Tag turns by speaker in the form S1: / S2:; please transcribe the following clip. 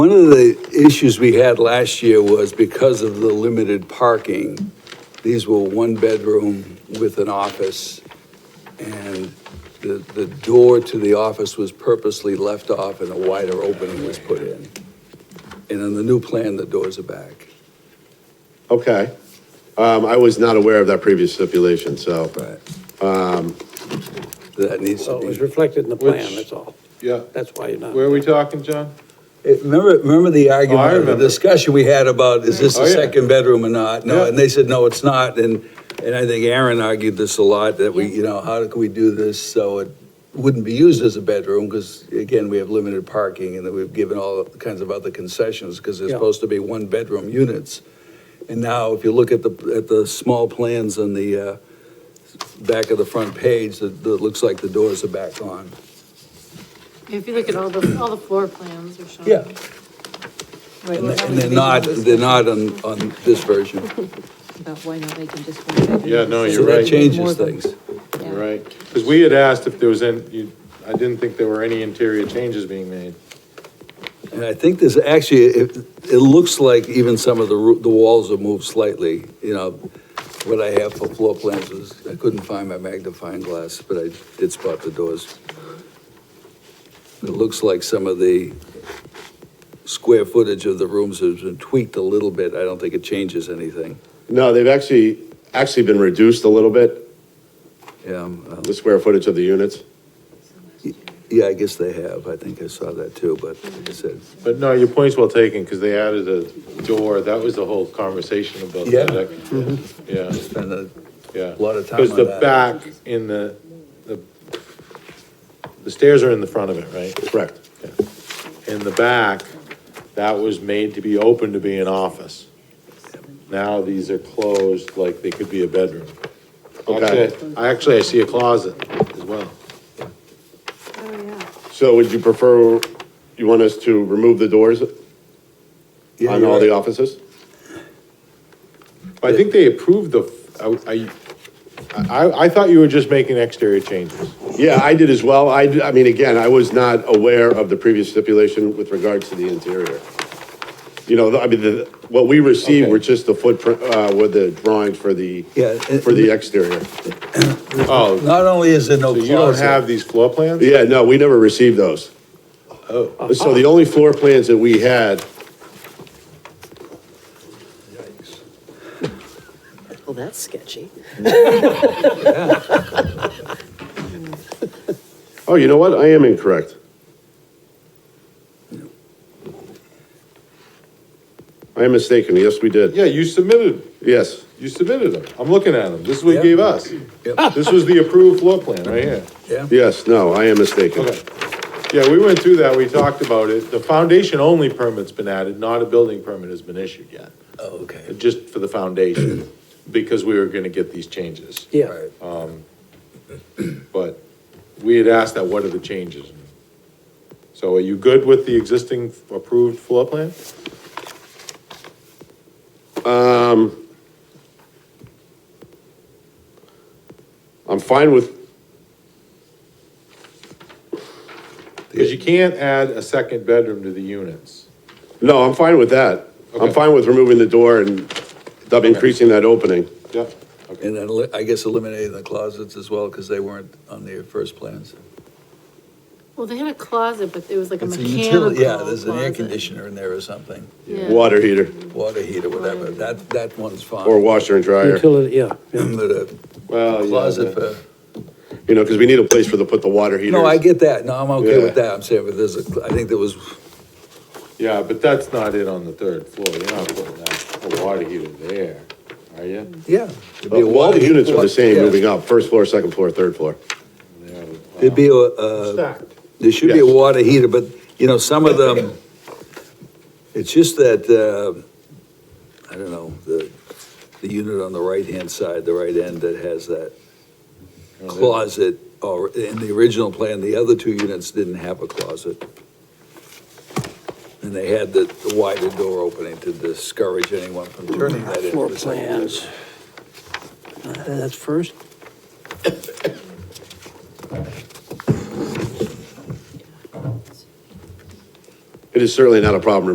S1: One of the issues we had last year was because of the limited parking, these were one bedroom with an office, and the, the door to the office was purposely left off and a wider opening was put in. And on the new plan, the doors are back.
S2: Okay. Um, I was not aware of that previous stipulation, so.
S1: Right. That needs
S3: So
S1: to
S3: it was
S1: be.
S3: reflected in the plan,
S4: Which-
S3: that's all.
S4: Yeah,
S3: That's why you're not.
S4: where are we talking, John?
S1: Eh, Remember, remember the argument, the
S4: Oh, remember.
S1: discussion we had about, is this
S4: Oh,
S1: a
S4: yeah.
S1: second bedroom or not? No,
S4: Yeah.
S1: and they said, no, it's not, and, and I think Aaron argued this a lot, that we, you know, how can we do this so it wouldn't be used as a bedroom, because again, we have limited parking, and that we've given all kinds of other concessions, because they're
S3: Yeah.
S1: supposed to be one-bedroom units. And now, if you look at the, at the small plans on the, uh, back of the front page, that, that looks like the doors are back on.
S5: If you look at all the, all the floor plans are shown.
S1: Yeah.
S6: Right,
S1: And
S6: well,
S1: they-
S6: that
S1: and
S6: would
S1: they're
S6: be
S1: not,
S6: the-
S1: they're not on, on this version.
S6: About why not make them just one bedroom?
S4: Yeah, no,
S6: So
S4: you're
S1: So
S6: they
S1: that
S4: right.
S6: make more
S1: changes
S6: of them.
S1: things.
S6: Yeah.
S4: You're Right, because we had asked if there was any, you- I didn't think there were any interior changes being made.
S1: And I think there's actually, it, it looks like even some of the, roo- the walls have moved slightly, you know. What I have for floor plans is, I couldn't find my magnifying glass, but I did spot the doors. It looks like some of the square footage of the rooms has been tweaked a little bit. I don't think it changes anything.
S2: No, they've actually, actually been reduced a little bit,
S1: Yeah, um, uh,
S2: the square footage of the units.
S1: yeah, I guess they have. I think I saw that too, but like I said,
S4: But no, your point's well taken, because they added a door, that was the whole conversation about
S1: Yeah.
S4: that. Yeah,
S1: spend a
S4: yeah.
S1: lot of time
S4: Because
S1: on
S4: the
S1: that.
S4: back in the, the, the stairs are in the front of it, right?
S2: Correct.
S4: in the back, that was made to be open to be an office. Now these are closed, like they could be a bedroom.
S2: Okay.
S4: Actually, I actually, I see a closet as well.
S5: Oh, yeah.
S2: So would you prefer, you want us to remove the doors
S1: Yeah,
S2: on
S1: you're
S2: all the
S1: right.
S2: offices?
S4: I think they approved the, I, I, I- I thought you were just making exterior changes.
S2: Yeah, I did as well. I, I mean, again, I was not aware of the previous stipulation with regards to the interior. You know, I mean, the, what we received were
S4: Okay.
S2: just the footprint, uh, with the drawings for the,
S1: Yeah, and-
S2: for the exterior.
S4: Oh,
S1: Not only is there no
S4: so
S1: closet.
S4: you don't have these floor plans?
S2: Yeah, no, we never received those. Oh. So the only floor plans that we had,
S6: Well, that's sketchy.
S2: oh, you know what? I am incorrect. I am mistaken. Yes, we did.
S4: Yeah, you submitted,
S2: Yes.
S4: you submitted them. I'm looking at them. This is what
S1: Yeah.
S4: you gave us.
S1: Yep.
S4: This was the approved floor plan right here.
S1: Yeah.
S2: Yes, no, I am mistaken.
S4: Okay. Yeah, we went through that, we talked about it. The foundation only permit's been added, not a building permit has been issued yet,
S1: Oh, okay.
S4: just for the foundation, because we were gonna get these changes.
S3: Yeah,
S1: Right.
S2: Oh,
S4: But we had asked that, what are the changes? So are you good with the existing approved floor plan?
S2: I'm fine with,
S4: Because you can't add a second bedroom to the units.
S2: no, I'm fine with that. I'm
S4: Okay.
S2: fine with removing the door and increasing that opening.
S4: Yep.
S1: And then li- I guess eliminating the closets as well, because they weren't on the first plans.
S5: Well, they had a closet, but it was like a
S1: It's a
S5: mechanical
S1: utility,
S5: closet.
S1: yeah, there's an air conditioner in there or something,
S5: Yeah.
S2: Water heater
S1: water heater, whatever, that, that one's fine.
S2: or Oh, washer and dryer,
S3: utility, yeah.
S1: But a
S4: Well,
S1: closet for,
S2: you know, because we need a place for the, put the water heater.
S1: no, I get that, no, I'm okay with
S2: Yeah.
S1: that, I'm saying, but there's a, cl- I think there was,
S4: Yeah, but that's not it on the third floor. You're not putting that, a water heater there, are you?
S1: yeah. it'd be a
S2: All
S1: water-
S2: the units are the same
S1: yeah.
S2: moving up, first floor, second floor, third floor.
S1: It'd be a, uh,
S4: Stacked.
S1: There should be a
S2: Yes.
S1: water heater, but, you know, some of them, it's just that, uh, I don't know, the, the unit on the right-hand side, the right end that has that closet, or in the original plan, the other two units didn't have a closet. And they had the the wider door opening to discourage anyone from turning that into
S3: Floor
S1: a second
S3: plans.
S1: bedroom.
S3: Uh, That's first.
S2: It is certainly not a problem